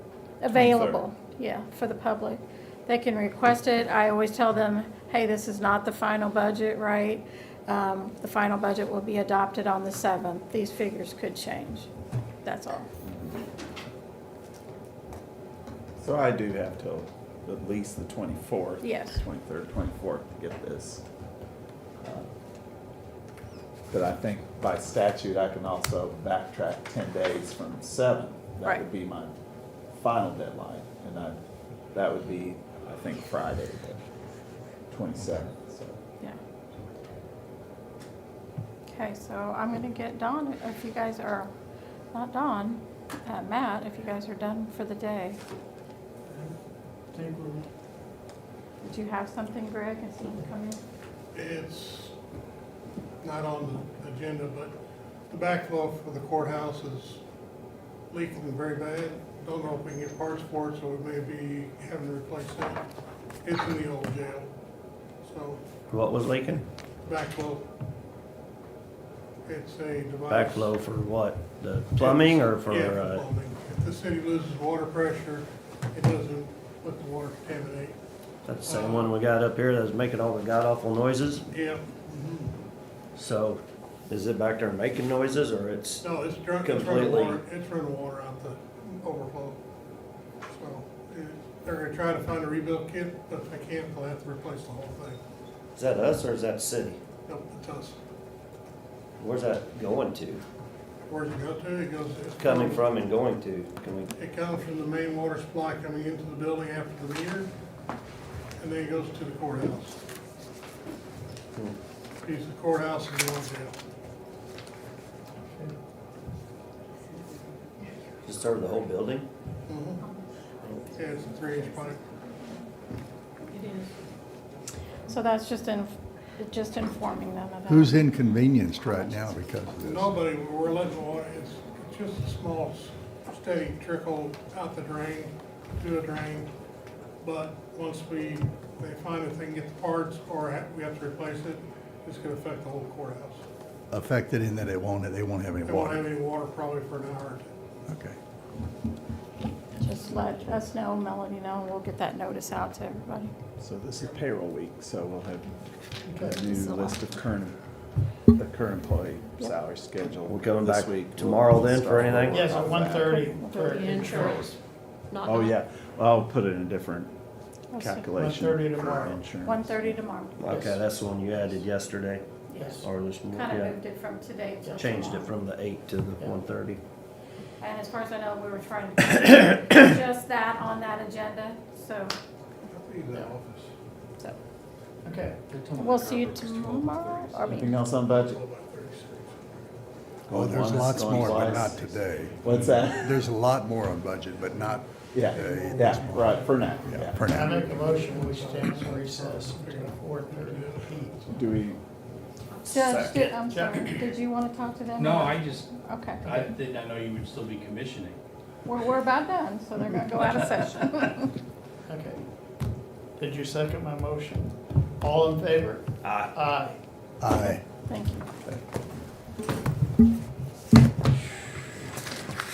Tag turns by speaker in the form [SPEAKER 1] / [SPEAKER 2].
[SPEAKER 1] available, yeah, for the public. They can request it. I always tell them, hey, this is not the final budget, right? Um, The final budget will be adopted on the 7th. These figures could change. That's all.
[SPEAKER 2] So I do have till at least the twenty-fourth.
[SPEAKER 1] Yes.
[SPEAKER 2] Twenty-third, twenty-fourth to get this. uh, But I think by statute, I can also backtrack ten days from seven. That
[SPEAKER 1] Right.
[SPEAKER 2] would be my final deadline, and I, that would be, I think, Friday, the twenty-seventh, so.
[SPEAKER 1] Yeah. Okay, so I'm gonna get Dawn, if you guys are, not Dawn, uh, Matt, if you guys are done for the day.
[SPEAKER 3] Think we're-
[SPEAKER 1] Did you have something, Greg, and someone come in?
[SPEAKER 3] It's not on the agenda, but the backflow for the courthouse is leaking very bad. Don't know if we can get parts for it, so we may be having to replace that. It's in the old jail, so
[SPEAKER 4] What was leaking?
[SPEAKER 3] backflow. It's a device.
[SPEAKER 4] Backflow for what? The plumbing or for,
[SPEAKER 3] Yeah,
[SPEAKER 4] uh,
[SPEAKER 3] plumbing. If the city loses water pressure, it doesn't let the water contaminate.
[SPEAKER 4] that's the same one we got up here that was making all the god awful noises?
[SPEAKER 3] Yeah,
[SPEAKER 4] So is it back there making noises or it's,
[SPEAKER 3] No, it's drunk, it's running
[SPEAKER 4] Completely.
[SPEAKER 3] water, it's running water out the overflow. So, it- they're gonna try to find a rebuild kit, but if they can't, they'll have to replace the whole thing.
[SPEAKER 4] is that us or is that city?
[SPEAKER 3] Nope, it's us.
[SPEAKER 4] Where's that going to?
[SPEAKER 3] Where's it go to? It goes. it's
[SPEAKER 4] Coming from and going to? Can we,
[SPEAKER 3] It comes from the main water supply coming into the building after the meter, and then it goes to the courthouse.
[SPEAKER 4] Hmm.
[SPEAKER 3] Piece of courthouse and the old jail.
[SPEAKER 4] just over the whole building?
[SPEAKER 3] Yeah, it's a three-inch pipe.
[SPEAKER 1] So that's just in, just informing them about.
[SPEAKER 5] Who's inconvenienced right now because of this?
[SPEAKER 3] Nobody, we're letting the water, it's it's just a small s- steady trickle out the drain, to a drain. But once we, they find if they can get the parts or ha- we have to replace it, it's gonna affect the whole courthouse.
[SPEAKER 5] Affected in that it won't, they won't have any
[SPEAKER 3] They won't
[SPEAKER 5] water?
[SPEAKER 3] have any water probably for an hour or two.
[SPEAKER 5] Okay.
[SPEAKER 1] Just let us know, Melanie know, and we'll get that notice out to everybody.
[SPEAKER 2] So this is payroll week, so we'll have a new
[SPEAKER 1] This is a lot.
[SPEAKER 2] list of current, the current employee salary schedule.
[SPEAKER 4] We're coming
[SPEAKER 2] this
[SPEAKER 4] back
[SPEAKER 2] week.
[SPEAKER 4] tomorrow
[SPEAKER 2] We'll
[SPEAKER 4] then for
[SPEAKER 2] start
[SPEAKER 4] anything?
[SPEAKER 2] working
[SPEAKER 6] Yes, at
[SPEAKER 2] on
[SPEAKER 6] one
[SPEAKER 2] that.
[SPEAKER 6] thirty for
[SPEAKER 7] The
[SPEAKER 6] insurance.
[SPEAKER 7] insurance. Not
[SPEAKER 2] Oh,
[SPEAKER 7] now.
[SPEAKER 2] yeah, well, I'll put it in a different
[SPEAKER 1] Let's see.
[SPEAKER 2] calculation.
[SPEAKER 6] 1:30
[SPEAKER 2] for
[SPEAKER 6] tomorrow.
[SPEAKER 2] insurance.
[SPEAKER 1] 1:30 tomorrow.
[SPEAKER 4] Okay, that's the one you added yesterday
[SPEAKER 6] Yes.
[SPEAKER 4] or this
[SPEAKER 1] Kind of
[SPEAKER 4] morning,
[SPEAKER 1] moved it from today
[SPEAKER 4] yeah.
[SPEAKER 1] till tomorrow.
[SPEAKER 4] Changed it from the eight to the one thirty.
[SPEAKER 1] And as far as I know, we were trying to put just that on that agenda, so.
[SPEAKER 3] Leave that office.
[SPEAKER 6] Okay.
[SPEAKER 1] We'll see you tomorrow, or we-
[SPEAKER 2] Anything else on budget?
[SPEAKER 3] Well, about 36.
[SPEAKER 5] Oh, there's
[SPEAKER 2] Going once,
[SPEAKER 5] lots
[SPEAKER 2] going
[SPEAKER 5] more, but
[SPEAKER 2] twice.
[SPEAKER 5] not today.
[SPEAKER 2] What's that?
[SPEAKER 5] There's a lot more on budget, but not
[SPEAKER 2] Yeah,
[SPEAKER 5] today.
[SPEAKER 2] yeah, right, for now,
[SPEAKER 5] Yeah,
[SPEAKER 2] Uh, yeah.
[SPEAKER 5] for
[SPEAKER 6] I
[SPEAKER 5] now.
[SPEAKER 6] make a motion, we stand in recess until four thirty P M.
[SPEAKER 2] Do we,
[SPEAKER 1] Judge, did- I'm
[SPEAKER 6] Second.
[SPEAKER 1] sorry, did you want to talk to them?
[SPEAKER 8] No, I just,
[SPEAKER 1] Okay,
[SPEAKER 8] I did not know you would still be commissioning.
[SPEAKER 1] we're, we're about done, so they're gonna go out of session.
[SPEAKER 6] Okay. Did you second my motion? All in favor?
[SPEAKER 4] Aye.
[SPEAKER 6] Aye.
[SPEAKER 5] Aye.
[SPEAKER 1] Thank you.